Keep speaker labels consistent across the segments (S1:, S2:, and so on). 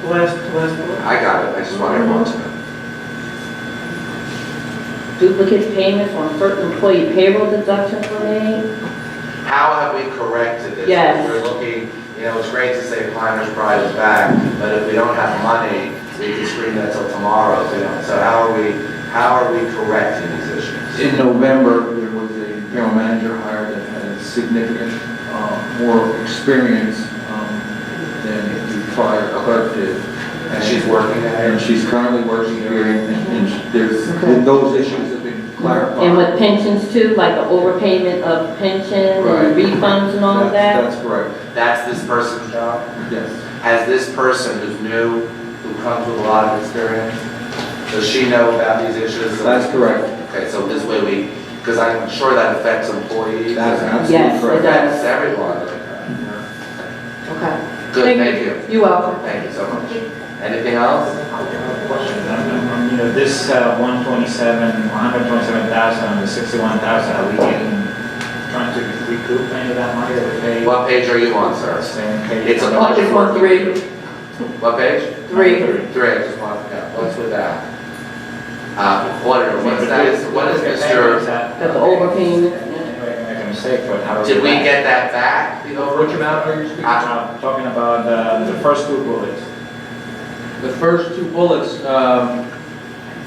S1: The last, the last one?
S2: I got it, I just want everyone to know.
S3: Duplicate payments on certain employee payroll deductions were made.
S2: How have we corrected this?
S3: Yes.
S2: We're looking, you know, it's great to say Finders Pride is back, but if we don't have money, we can screen that till tomorrow, you know? So how are we, how are we correcting these issues?
S4: In November, there was a general manager hired that had significant, uh, more experience um, than the prior clerk did.
S2: And she's working
S4: And
S2: at it?
S4: she's currently working here, and and there's, those issues have been clarified.
S3: And with pensions too, like the overpayment of pension
S4: Right.
S3: and refunds and all of that.
S4: That's that's correct,
S2: That's this person's job?
S4: yes.
S2: Has this person who's new, who comes with a lot of experience, does she know about these issues?
S4: That's correct,
S2: Okay, so this way we, because I'm sure that affects employees.
S4: that's absolutely
S3: Yes, it
S4: correct.
S2: Affects everyone.
S3: Okay.
S2: Good, thank you.
S3: You're welcome.
S2: Thank you so much. Anything else?
S5: Question, um, you know, this uh, 127, 127,000, and the 61,000, are we getting, trying to recoup any of that money that we paid?
S2: What page are you on, sir?
S5: Same page.
S2: It's a
S3: Oh, just one, three,
S2: What page?
S3: three.
S2: Three, I just want to know, what's with that? Uh, auditor, what's that, is- what is Mr.,
S3: Got the overpayment.
S5: Make a mistake, but how?
S2: did we get that back? The over-
S5: Which amount are you speaking?
S2: Ah.
S5: I'm talking about uh, the first two bullets.
S6: The first two bullets, um,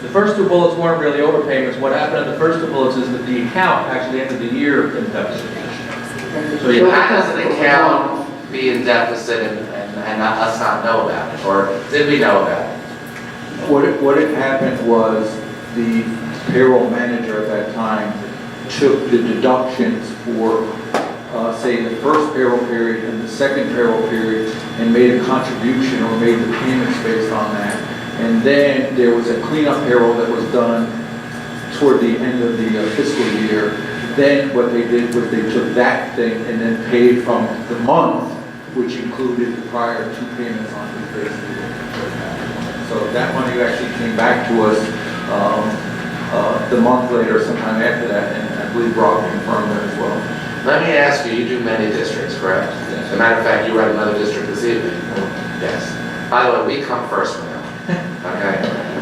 S6: the first two bullets weren't really overpayments. What happened in the first two bullets is that the account actually ended the year in deficit. So you
S3: Sure,
S2: How does
S3: because
S2: an
S3: of the loan.
S2: account be in deficit and, and and not- us not know about it, or did we know about it?
S4: What, it- what had happened was the payroll manager at that time took the deductions for, uh, say, the first payroll period and the second payroll period and made a contribution or made the payments based on that. And then there was a cleanup payroll that was done toward the end of the uh, fiscal year. Then what they did was they took that thing and then paid from the month, which included the prior two payments on the fiscal year. So that money actually came back to us um, uh, the month later, sometime after that, and I believe Rob confirmed that as well.
S2: Let me ask you, you do many districts, correct? As a matter of fact, you were at another district this evening. Yes. By the way, we come first now, okay?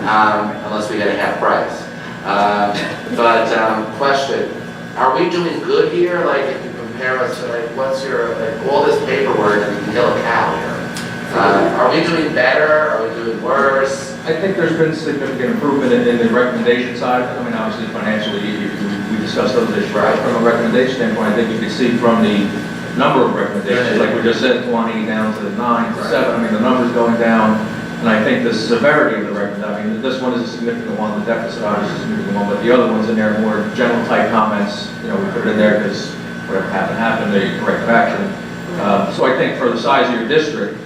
S2: Um, Unless we get a half price. Um, But um, question, are we doing good here? Like, if you compare us to, like, what's your, like, all this paperwork and you can kill a cow here. Uh, Are we doing better? Are we doing worse?
S6: I think there's been significant improvement in, in the recommendation side. I mean, obviously financially, you, you- we discussed those issues, right? From a recommendation standpoint, I think you can see from the number of recommendations, like we just said, twenty down to nine to seven. I mean, the number's going down. And I think the severity of the recommend, I mean, this one is a significant one, the deficit obviously is a significant one, but the other ones in there are more general type comments. You know, we put it in there because whatever happened, happened, they corrective action. Um, so I think for the size of your district,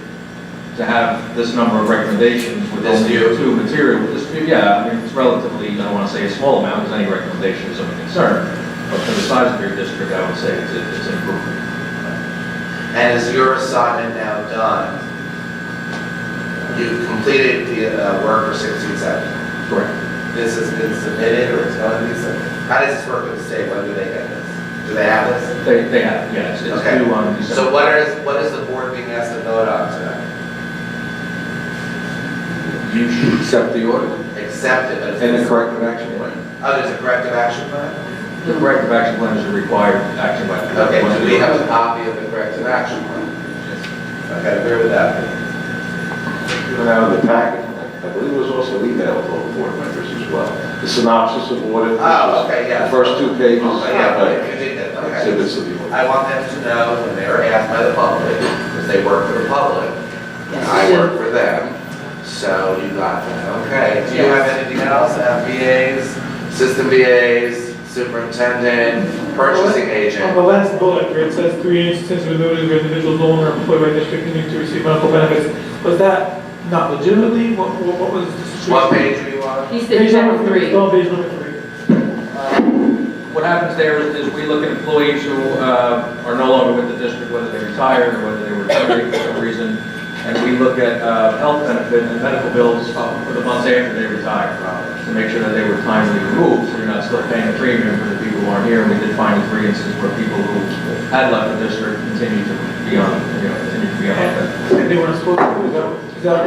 S6: to have this number of recommendations with
S2: This
S6: only
S2: few.
S6: two material, this, few, yeah, I mean, it's relatively, I don't want to say a small amount, because any recommendation is of concern, but for the size of your district, I would say it's, it's an improvement.
S2: And is your assignment now done? You've completed the uh, work for 1670.
S6: Correct.
S2: this has been submitted or it's going to be submitted? How does this work with the state? When do they get this? Do they have this?
S6: They, they have, yes, it's
S2: Okay.
S6: due on December.
S2: So what is, what is the board being asked to vote on tonight?
S4: You should accept the order
S2: Accept it, but
S4: and the
S2: it's,
S4: corrective action plan.
S2: oh, there's a corrective action plan?
S6: The corrective action plan is a required action by. the-
S2: Okay, do we have a copy of the corrective action plan? Okay, agree with that.
S7: Given out of the packet, I believe it was also emailed to all the board members as well. The synopsis of what it is.
S2: Oh, okay, yeah.
S7: The first two pages.
S2: Oh, yeah, but you did that,
S7: uh,
S2: okay.
S7: Exhibits of the order.
S2: I want them to know when they are asked by the public, because they work for the public, and I work for them, so you got that, okay. Do you have anything else, Uh, VAs, system VAs, superintendent, purchasing
S1: On
S2: agent?
S1: the last bullet, where it says three instances were noted where individuals no longer employed by district continuing to receive medical benefits, was that not legitimately? What, what what was the situation?
S2: What page are you on?
S3: He's the
S1: Page number
S3: number
S1: three,
S3: three.
S1: it's on page number three.
S6: What happens there is, is we look at employees who, uh, are no longer with the district, whether they retired or whether they were terminated for some reason, and we look at, uh, health benefit and medical bills uh, for the months after they retired, to make sure that they were timely removed, so you're not still paying a premium for the people who aren't here, and we did find three instances where people who had left the district continued to be on, you know, continued to be on health benefits.
S1: And they weren't supposed to, is that, is that